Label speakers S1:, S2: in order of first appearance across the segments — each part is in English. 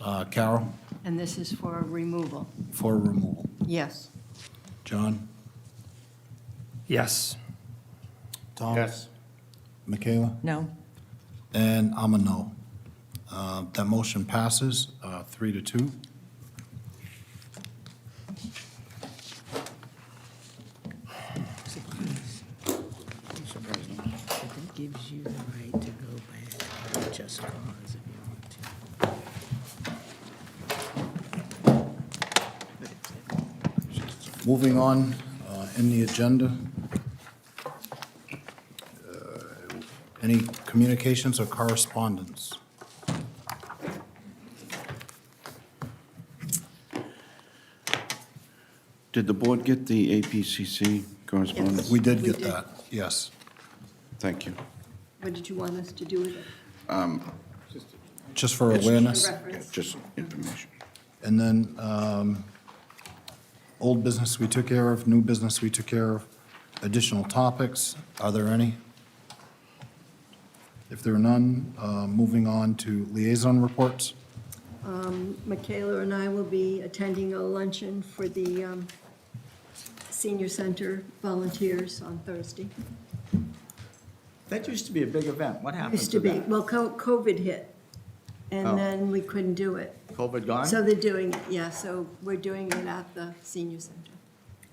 S1: Uh, Carol,
S2: And this is for removal?
S1: for removal.
S2: Yes.
S1: John?
S3: Yes.
S1: Tom? Michaela?
S4: No.
S1: And I'm a no. Uh, That motion passes, uh, three to two.
S5: But that gives you the right to go back and just cause if you want to.
S1: Moving on uh, in the agenda. Uh, Any communications or correspondence?
S6: Did the board get the APCC correspondence?
S1: We did
S2: We
S1: get
S2: did.
S1: that, yes.
S6: Thank you.
S2: What did you want us to do with it?
S1: Just for awareness.
S6: Yeah,
S2: Reference?
S6: Just information.
S1: And then, um, old business we took care of, new business we took care of, additional topics, are there any? If there are none, uh, moving on to liaison reports.
S2: Michaela and I will be attending a luncheon for the um, senior center volunteers on Thursday.
S7: That used to be a big event. What happened
S2: Used
S7: to
S2: to be,
S7: that?
S2: well, co- COVID hit,
S7: Oh.
S2: and then we couldn't do it.
S7: COVID gone?
S2: So they're doing it, yeah, so we're doing it at the senior center.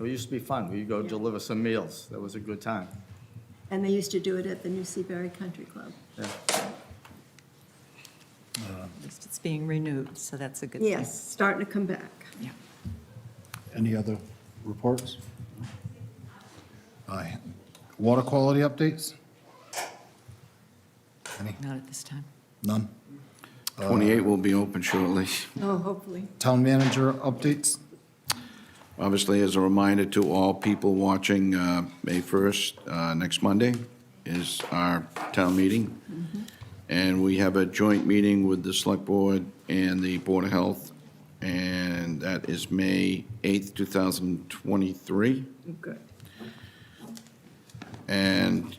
S7: It used to be fun. We'd go
S2: Yeah.
S7: deliver some meals. That was a good time.
S2: And they used to do it at the New Seaberry Country Club.
S7: Yeah.
S4: It's being renewed, so that's a good thing.
S2: Yes, starting to come back.
S1: Any other reports? Aye. Water quality updates? Any?
S4: Not at this time.
S1: None?
S6: 28 will be open shortly.
S2: Oh, hopefully.
S1: Town manager updates?
S6: Obviously, as a reminder to all people watching, uh, May 1st, uh, next Monday, is our town meeting. And we have a joint meeting with the Select Board and the Board of Health, and that is May 8th, 2023.
S2: Good.
S6: And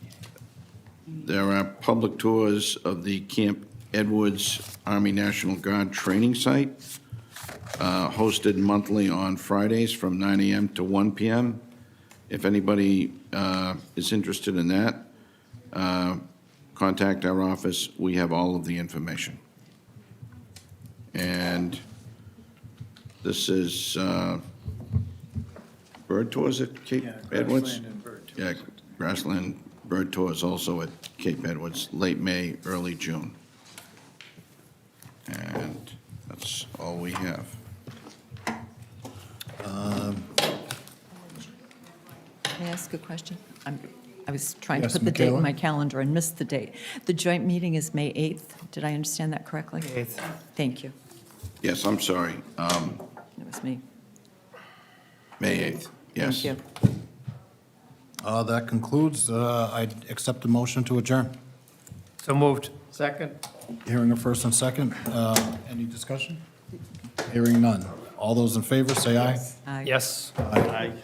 S6: there are public tours of the Camp Edwards Army National Guard Training Site, uh, hosted monthly on Fridays from 9 AM to 1 PM. If anybody uh, is interested in that, uh, contact our office. We have all of the information. And this is uh, Bird Tours at Cape Edwards? Yeah, grassland bird tours also at Cape Edwards, late May, early June. And that's all we have.
S4: Can I ask a question? I'm- I was trying to
S1: Yes,
S4: put the date
S1: Michaela?
S4: in my calendar and missed the date. The joint meeting is May 8th. Did I understand that correctly?
S3: 8th.
S4: Thank you.
S6: Yes, I'm sorry, um,
S4: It was me.
S6: May 8th, yes.
S4: Thank you.
S1: Uh, That concludes. Uh, I accept the motion to adjourn.
S3: So moved.
S7: Second?
S1: Hearing a first and second. Uh, Any discussion? Hearing none. All those in favor, say aye.
S4: Aye.
S3: Yes.
S7: Aye.